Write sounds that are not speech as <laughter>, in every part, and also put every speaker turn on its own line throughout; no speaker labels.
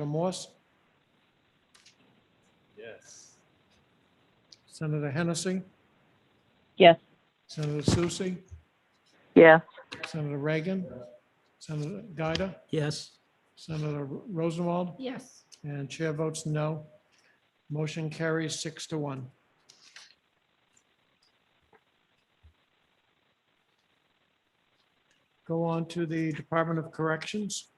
Senator Morse,
Yes.
Senator Hennessy,
Yes.
Senator Susie,
Yes.
Senator Reagan, Senator Gaida,
Yes.
Senator Rosenwald,
Yes.
and chair votes no. Motion carries six to one. Go on to the Department of Corrections.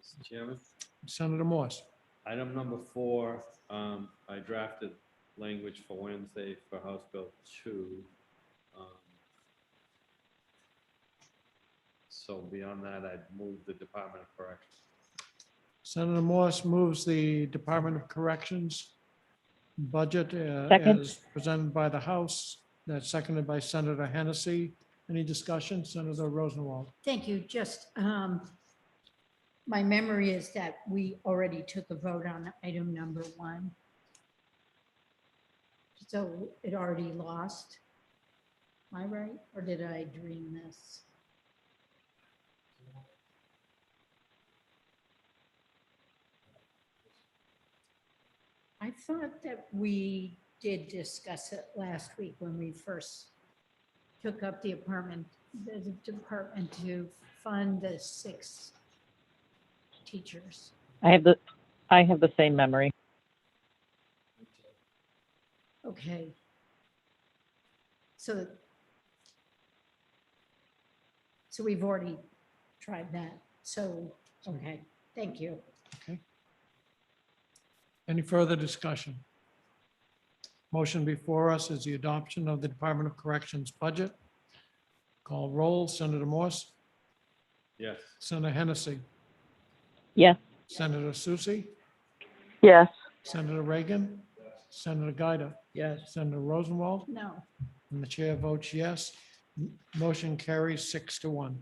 Mr. Chairman,
Senator Morse.
item number four, um, I drafted language for Wednesday for House Bill two. Um, So beyond that, I'd move the Department of Corrections.
Senator Morse moves the Department of Corrections budget uh,
Second.
as presented by the House. That's seconded by Senator Hennessy. Any discussion? Senator Rosenwald.
Thank you. Just, um, my memory is that we already took a vote on item number one. So it already lost. Am I right? Or did I dream this? I thought that we did discuss it last week when we first took up the apartment, the department to fund the six teachers.
I have the, I have the same memory.
Okay. So so we've already tried that. So, okay, thank you.
Any further discussion? Motion before us is the adoption of the Department of Corrections budget. Call roll. Senator Morse.
Yes.
Senator Hennessy.
Yes.
Senator Susie.
Yes.
Senator Reagan. Senator Gaida.
Yes.
Senator Rosenwald.
No,
And the chair votes yes. M- Motion carries six to one.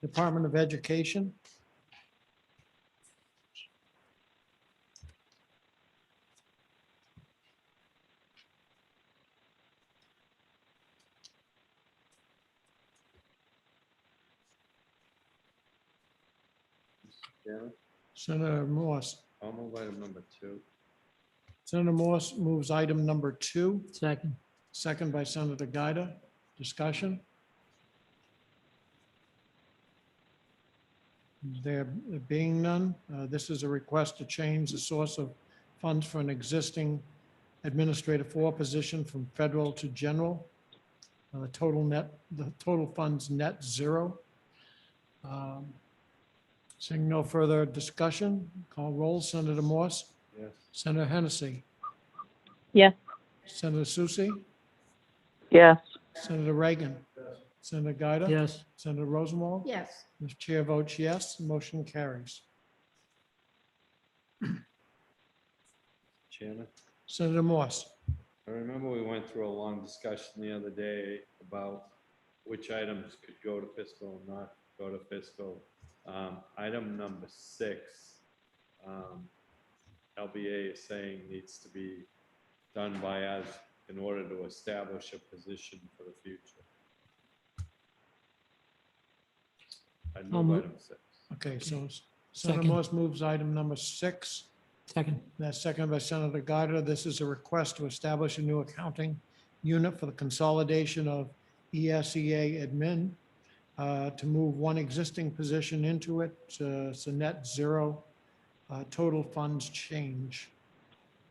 Department of Education,
Chairman,
Senator Morse.
I'll move item number two.
Senator Morse moves item number two,
Second.
second by Senator Gaida. Discussion? There being none, uh, this is a request to change the source of funds for an existing administrative four position from federal to general. Uh, The total net, the total funds net zero. Um, Seeing no further discussion, call roll. Senator Morse?
Yes.
Senator Hennessy?
Yes.
Senator Susie?
Yes.
Senator Reagan? Senator Gaida?
Yes.
Senator Rosenwald?
yes,
The chair votes yes, the motion carries.
Chairman,
Senator Morse?
I remember we went through a long discussion the other day about which items could go to fiscal and not go to fiscal. Um, item number six, um, LBA is saying needs to be done by us in order to establish a position for the future. I
I'll
move
move-
item six.
Okay, so Senator
Second.
Morse moves item number six.
Second.
That's seconded by Senator Gaida. This is a request to establish a new accounting unit for the consolidation of E ESEA admin uh, to move one existing position into it. uh, It's a net zero uh, total funds change.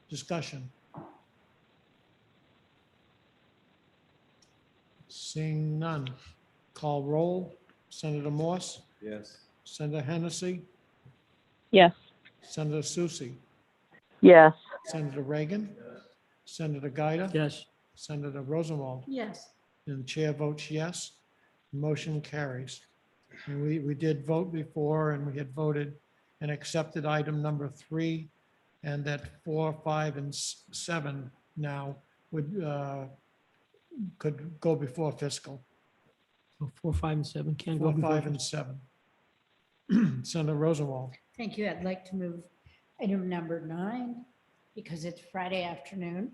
Discussion. Seeing none. Call roll. Senator Morse,
Yes,
Senator Hennessy,
Yes.
Senator Susie.
Yes.
Senator Reagan. Senator Gaida.
Yes.
Senator Rosenwald.
yes,
And the chair votes yes. Motion carries. And we, we did vote before and we had voted and accepted item number three. And that four, five, and s- seven now would, uh, could go before fiscal.
So Four, five, and seven can go.
Four,
before-
five, and seven. <clears throat> Senator Rosenwald.
thank you. I'd like to move item number nine because it's Friday afternoon.